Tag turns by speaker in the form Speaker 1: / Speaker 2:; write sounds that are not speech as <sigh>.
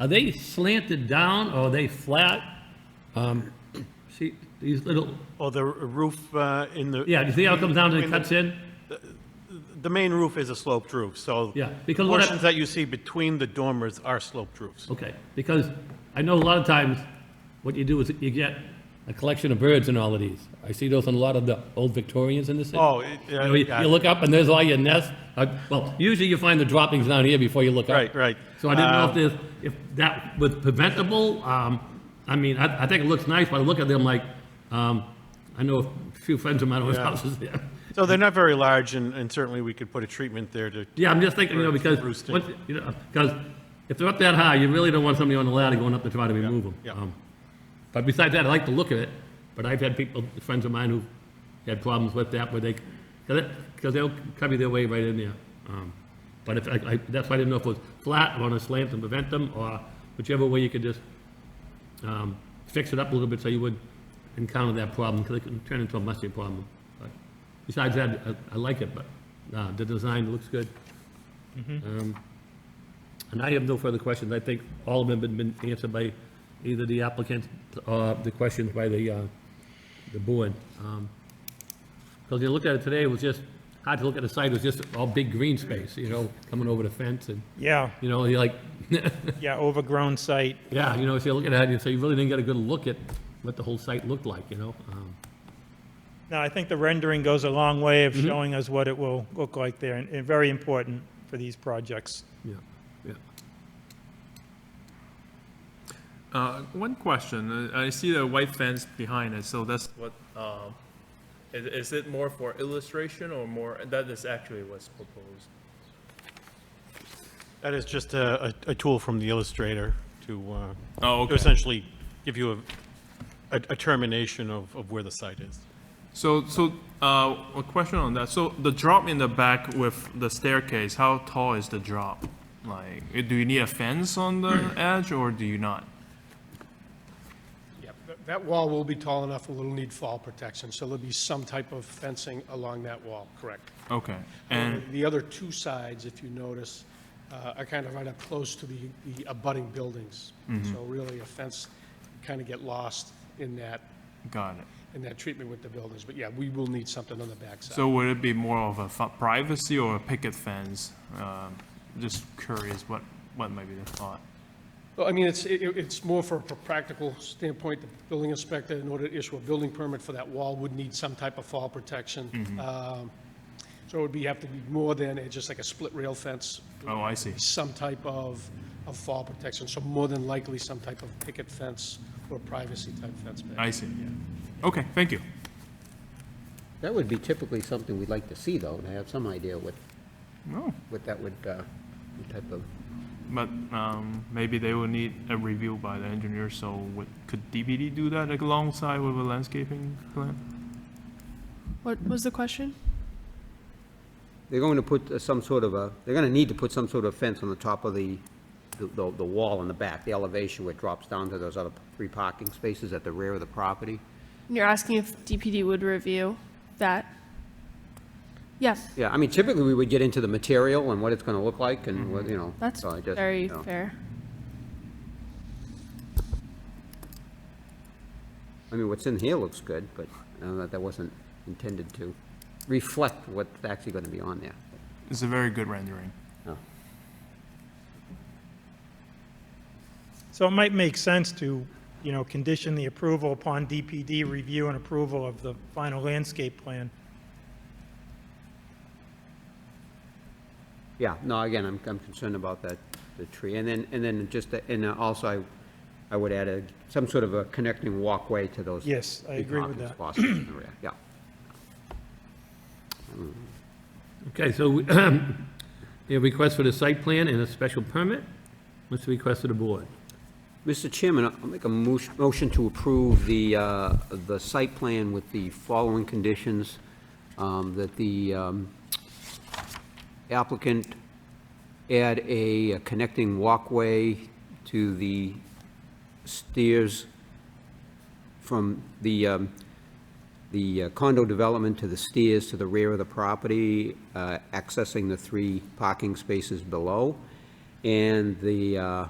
Speaker 1: Are they slanted down or are they flat? Um, See, these little,
Speaker 2: Or the r- roof uh, in the...
Speaker 1: yeah, do you see how it comes down and it cuts in?
Speaker 2: The main roof is a sloped roof, so...
Speaker 1: Yeah, because what I-
Speaker 2: Portions that you see between the dormers are sloped roofs.
Speaker 1: Okay, because I know a lot of times, what you do is you get a collection of birds and all of these. I see those in a lot of the old Victorians in the city.
Speaker 2: Oh, it-
Speaker 1: You know, You
Speaker 2: yeah,
Speaker 1: you look up and there's all your nests. Uh, Well, usually you find the droppings down here before you look up.
Speaker 2: right, right.
Speaker 1: So I didn't know if
Speaker 2: Uh,
Speaker 1: there's, if that was preventable. Um, I mean, I, I think it looks nice, but I look at them like, um, I know a few friends of mine whose
Speaker 2: Yeah.
Speaker 1: houses there.
Speaker 2: So they're not very large, and and certainly we could put a treatment there to...
Speaker 1: Yeah, I'm just thinking, you know,
Speaker 2: Birds,
Speaker 1: because,
Speaker 2: roosting.
Speaker 1: once- you know, because if they're up that high, you really don't want somebody on the ladder going up to try to remove them.
Speaker 2: yeah.
Speaker 1: Um, But besides that, I like the look of it, but I've had people, friends of mine who had problems with that, where they, because they'll cover their way right in there. Um, But if, I, I- that's why I didn't know if it was flat, or on a slant and prevent them, or whichever way you could just um, fix it up a little bit so you would encounter that problem, because it can turn into a musty problem. But Besides that, I- I like it, but uh, the design looks good. Um, And I have no further questions. I think all of them have been answered by either the applicant or the questions by the, uh, the board. Because you looked at it today, it was just, hard to look at the site, it was just all big green space, you know, coming over the fence and,
Speaker 3: Yeah,
Speaker 1: you know, you're like, <laughs>
Speaker 3: yeah, overgrown site.
Speaker 1: yeah, you know, so you look at it, and so you really didn't get a good look at what the whole site looked like, you know? Um,
Speaker 3: No, I think the rendering goes a long way of showing us what it will look like there, and- and very important for these projects.
Speaker 1: Yeah, yeah.
Speaker 4: Uh, One question, Uh, I see the white fence behind it, so that's what, um, is is it more for illustration or more, that is actually what's proposed?
Speaker 2: That is just a a- a tool from the illustrator to... uh,
Speaker 4: Oh,
Speaker 2: To essentially give you a- a a termination of of where the site is.
Speaker 4: So, so uh, a question on that, so the drop in the back with the staircase, how tall is the drop? Like, eh, do you need a fence on <clears throat> the edge or do you not?
Speaker 5: Yep, that- that wall will be tall enough, it'll need fall protection, so there'll be some type of fencing along that wall, correct.
Speaker 4: Okay, and,
Speaker 5: The other two sides, if you notice, uh, are kind of right up close to the the abutting buildings. So really, a fence, kind of get lost in that,
Speaker 4: got it.
Speaker 5: in that treatment with the buildings. But yeah, we will need something on the backside.
Speaker 4: So would it be more of a fa- privacy or a picket fence? Um, Just curious what, what might be the thought?
Speaker 5: Well, I mean, it's, it- it's more for a practical standpoint, the building inspector, in order to issue a building permit for that wall, would need some type of fall protection. Um, So it would be, have to be more than a- just like a split rail fence,
Speaker 4: Oh, I see.
Speaker 5: some type of, of fall protection, so more than likely some type of picket fence or privacy type fence. back.
Speaker 4: I see, yeah. Okay, thank you.
Speaker 6: That would be typically something we'd like to see, though, and I have some idea what,
Speaker 4: No,
Speaker 6: what that would, uh, what type of,
Speaker 4: but um, maybe they will need a review by the engineer, so would, could DPD do that alongside with a landscaping plan?
Speaker 7: What was the question?
Speaker 6: they're going to put uh, some sort of a, they're gonna need to put some sort of fence on the top of the, the, the wall in the back, the elevation where it drops down to those other three parking spaces at the rear of the property.
Speaker 7: You're asking if DPD would review that? Yeah,
Speaker 6: Yeah, I mean, typically, we would get into the material and what it's gonna look like and what, you know.
Speaker 7: that's
Speaker 6: so I just,
Speaker 7: very
Speaker 6: you know.
Speaker 7: fair.
Speaker 6: I mean, what's in here looks good, but I know that that wasn't intended to reflect what's actually gonna be on there.
Speaker 4: It's a very good rendering.
Speaker 3: So it might make sense to, you know, condition the approval upon DPD review and approval of the final landscape plan.
Speaker 6: Yeah, no, again, I'm, I'm concerned about that, the tree, and then, and then just, the- and uh, also, I, I would add a, some sort of a connecting walkway to those.
Speaker 3: Yes, I
Speaker 6: big
Speaker 3: agree with
Speaker 6: parking
Speaker 3: that.
Speaker 6: spots in the rear, Yeah,
Speaker 1: Okay, so we- <clears throat> a request for the site plan and a special permit. What's the request of the board?
Speaker 6: Mr. Chairman, I'll make a mo- motion to approve the, uh, the site plan with the following conditions, um, that the um, applicant add a connecting walkway to the stairs from the, um, the uh, condo development to the stairs to the rear of the property, uh, accessing the three parking spaces below, and the, uh,